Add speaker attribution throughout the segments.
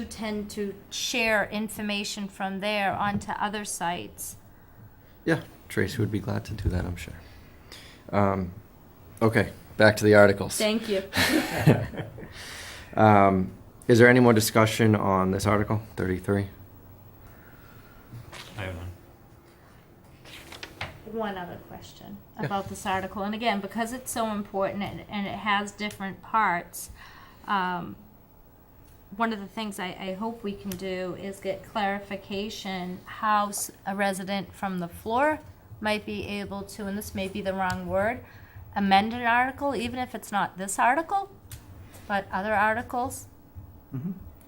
Speaker 1: do tend to share information from there onto other sites.
Speaker 2: Yeah, Tracy would be glad to do that, I'm sure. Um, okay, back to the articles.
Speaker 1: Thank you.
Speaker 2: Um, is there any more discussion on this article, 33?
Speaker 3: I have one.
Speaker 1: One other question
Speaker 2: Yeah.
Speaker 1: about this article, and again, because it's so important and, and it has different parts, um, one of the things I, I hope we can do is get clarification how s- a resident from the floor might be able to, and this may be the wrong word, amend an article, even if it's not this article, but other articles.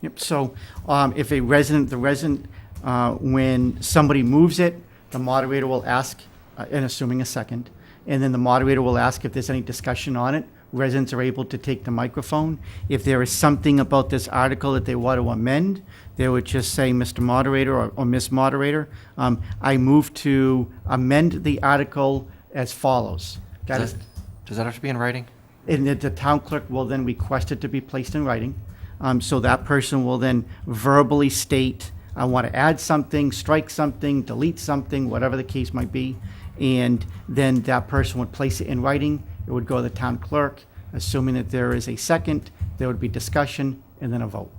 Speaker 4: Yep, so um, if a resident, the resident, uh, when somebody moves it, the moderator will ask, uh, and assuming a second, and then the moderator will ask if there's any discussion on it. Residents are able to take the microphone. If there is something about this article that they want to amend, they would just say, Mr. Moderator or- or Miss Moderator, um, I move to amend the article as follows. That
Speaker 2: Does
Speaker 4: is,
Speaker 2: that, does that have to be in writing?
Speaker 4: and that the town clerk will then request it to be placed in writing. Um, so that person will then verbally state, I want to add something, strike something, delete something, whatever the case might be. And then that person would place it in writing. It would go to the town clerk, assuming that there is a second, there would be discussion and then a vote.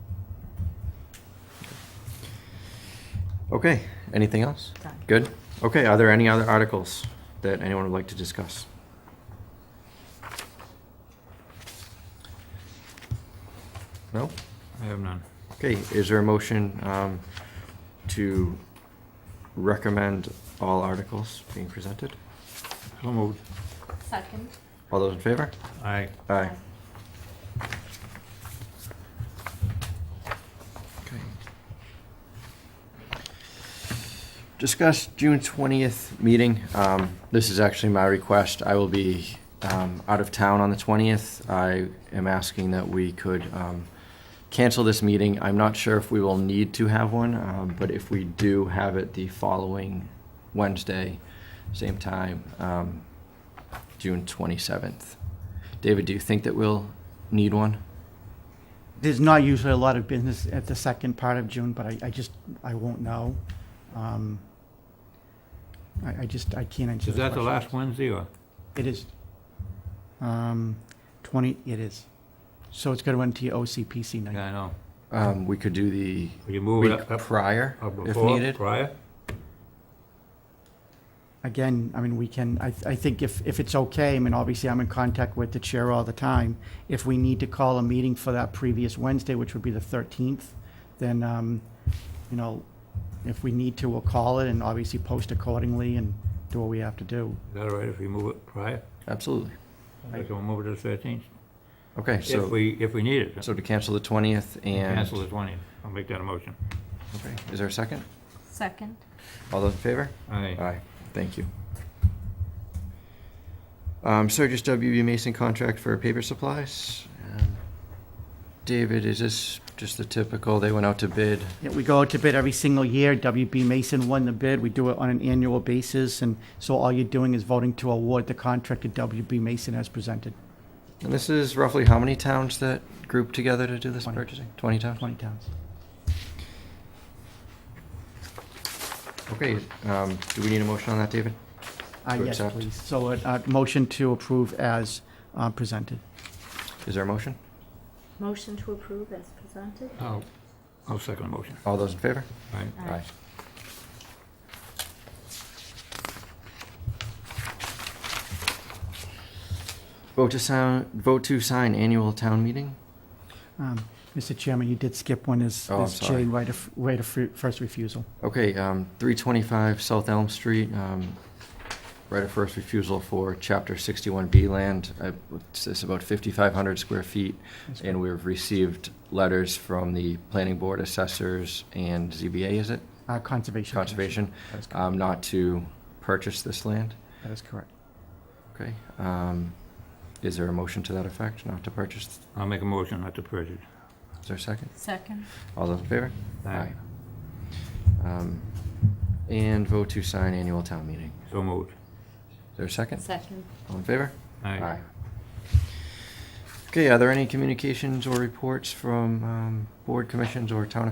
Speaker 2: Okay, anything else? Good? Okay, are there any other articles that anyone would like to discuss? No?
Speaker 3: I have none.
Speaker 2: Okay, is there a motion um, to recommend all articles being presented?
Speaker 3: So moved.
Speaker 1: Second.
Speaker 2: All those in favor?
Speaker 3: Aye.
Speaker 2: Aye. Okay. Discuss June twentieth meeting. Um, this is actually my request. I will be, um, out of town on the twentieth. I am asking that we could, um, cancel this meeting. I'm not sure if we will need to have one, um, but if we do have it the following Wednesday, same time, um, June twenty-seventh. David, do you think that we'll need one?
Speaker 4: There's not usually a lot of business at the second part of June, but I, I just, I won't know. Um, I, I just, I can't answer
Speaker 3: Is
Speaker 4: the
Speaker 3: that the
Speaker 4: question.
Speaker 3: last Wednesday or?
Speaker 4: It is. Um, twenty, it is. So it's gonna run to your OCPC night.
Speaker 3: Yeah, I know.
Speaker 2: Um, we could do the
Speaker 3: Will you move it
Speaker 2: week
Speaker 3: up, up,
Speaker 2: prior,
Speaker 3: up
Speaker 2: if
Speaker 3: before,
Speaker 2: needed.
Speaker 3: prior?
Speaker 4: Again, I mean, we can, I, I think if, if it's okay, I mean, obviously I'm in contact with the chair all the time. If we need to call a meeting for that previous Wednesday, which would be the thirteenth, then, um, you know, if we need to, we'll call it and obviously post accordingly and do what we have to do.
Speaker 3: Is that all right if we move it prior?
Speaker 2: Absolutely.
Speaker 3: Like we'll move it to the thirteenth?
Speaker 2: Okay,
Speaker 3: If
Speaker 2: so,
Speaker 3: we, if we need it.
Speaker 2: so to cancel the twentieth and.
Speaker 3: Cancel the twentieth. I'll make that a motion.
Speaker 2: Okay, is there a second?
Speaker 1: Second.
Speaker 2: All those in favor?
Speaker 3: Aye.
Speaker 2: Aye, thank you. Um, Sturgis WB Mason contract for paper supplies. Um, David, is this just the typical, they went out to bid?
Speaker 4: Yeah, we go out to bid every single year. WB Mason won the bid. We do it on an annual basis, and so all you're doing is voting to award the contract to WB Mason as presented.
Speaker 2: And this is roughly how many towns that grouped together to do this
Speaker 4: Twenty.
Speaker 2: purchasing? Twenty towns?
Speaker 4: Twenty towns.
Speaker 2: Okay, um, do we need a motion on that, David?
Speaker 4: Uh,
Speaker 2: To
Speaker 4: yes,
Speaker 2: accept.
Speaker 4: please. So, a uh, motion to approve as uh, presented.
Speaker 2: Is there a motion?
Speaker 1: Motion to approve as presented.
Speaker 3: I'll, I'll second the motion.
Speaker 2: All those in favor?
Speaker 3: Aye.
Speaker 1: Aye.
Speaker 2: Vote to sign, vote to sign annual town meeting?
Speaker 4: Um, Mr. Chairman, you did skip one as,
Speaker 2: Oh, I'm
Speaker 4: as
Speaker 2: sorry.
Speaker 4: J, right of, right of fir- first refusal.
Speaker 2: Okay, um, three twenty-five South Elm Street, um, right of first refusal for chapter sixty-one B land. I- It's it's about fifty-five hundred square feet,
Speaker 4: That's
Speaker 2: and we've received letters from the planning board assessors and ZBA, is it?
Speaker 4: Uh, Conservation. Commission.
Speaker 2: Conservation,
Speaker 4: That is correct.
Speaker 2: um, not to purchase this land.
Speaker 4: That is correct.
Speaker 2: Okay, um, is there a motion to that effect, not to purchase?
Speaker 3: I'll make a motion not to purchase.
Speaker 2: Is there a second?
Speaker 1: Second.
Speaker 2: All those in favor?
Speaker 3: Aye.
Speaker 2: Um, And vote to sign annual town meeting.
Speaker 3: So moved.
Speaker 2: Is there a second?
Speaker 1: Second.
Speaker 2: All in favor?
Speaker 3: Aye.
Speaker 2: Okay, are there any communications or reports from um, board commissions or town